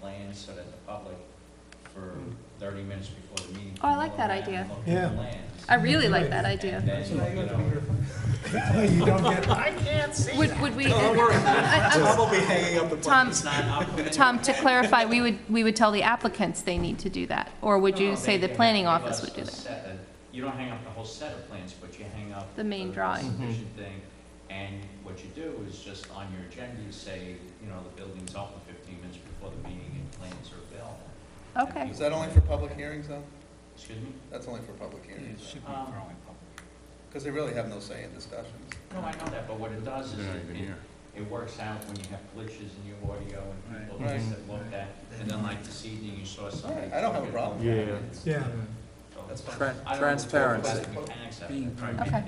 plans so that the public for thirty minutes before the meeting. Oh, I can like go that around idea. and look at the Yeah. plans. I really like that idea. And then, you know, You don't get, I Would, would we? I- Probably hanging up the I- Tom, It's not up to Tom, to clarify, we would, we would tell the applicants they need to do that? Or would No, you no, say they- the they planning have to give office us would do a that? set of- You don't hang up the whole set of plans, but you hang up. The main drawing. subdivision thing, and what you do is just on your agenda, you say, you know, the building's open fifteen minutes before the meeting and plans are available. And Okay. people- Is that only for public hearings, though? Excuse me? That's only for public hearings, Um, because they really have no say in discussions. No, I know that, but what it does is it- it, it works out when you have glitches in your audio and people Right. things that look at, and then like this evening, you saw somebody. I don't have a problem. Yeah. yeah. That's fine. Transparency. Being Okay.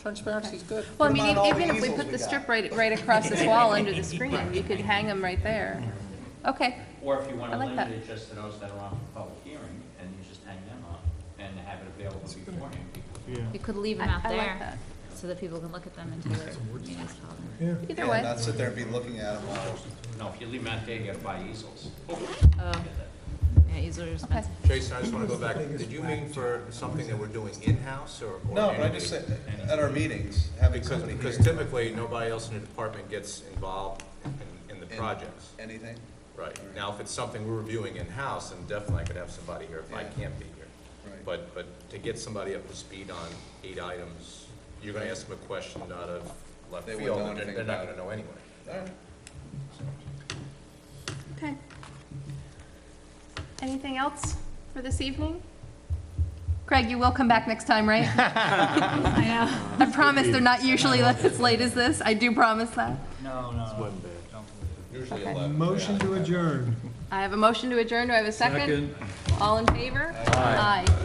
Transparency's good. Well, I Put 'em mean, e-, on all even the if we easels put we the got. strip right, right across this wall under the screen, you could hang them right there. Okay, uh, Or if you want I to like limit that. it just to those that are on for public hearing, and you just hang them up and have it available beforehand. You could leave them I- out I like there, that. so that people can look at them until they're municipal. Yeah. either And way. not sit there and be looking at them all. No, if you leave them out there, you gotta buy easels. Oh, yeah, easily Okay. responsible. Jason, I just want to go back, did you mean for something that we're doing in-house or? or No, but I just entity? said, at our meetings, having Because, somebody because here, typically, nobody else in the department gets involved in- in the In- projects. anything, Right. Now, if it's something we're reviewing in-house, then definitely I could have somebody here if I Yeah. can't be here. Right. But, but to get somebody up to speed on eight items, you're going to ask them a question out of left They wouldn't field, know and they're anything they're not about going to know anyway. all right. Okay. Anything else for this evening? Craig, you will come back next time, right? I know. I promise they're not usually as late as this. I do promise that. No, no. Usually Okay. eleven. Motion to adjourn. I have a motion to adjourn. Do I have a second? All in favor? Aye.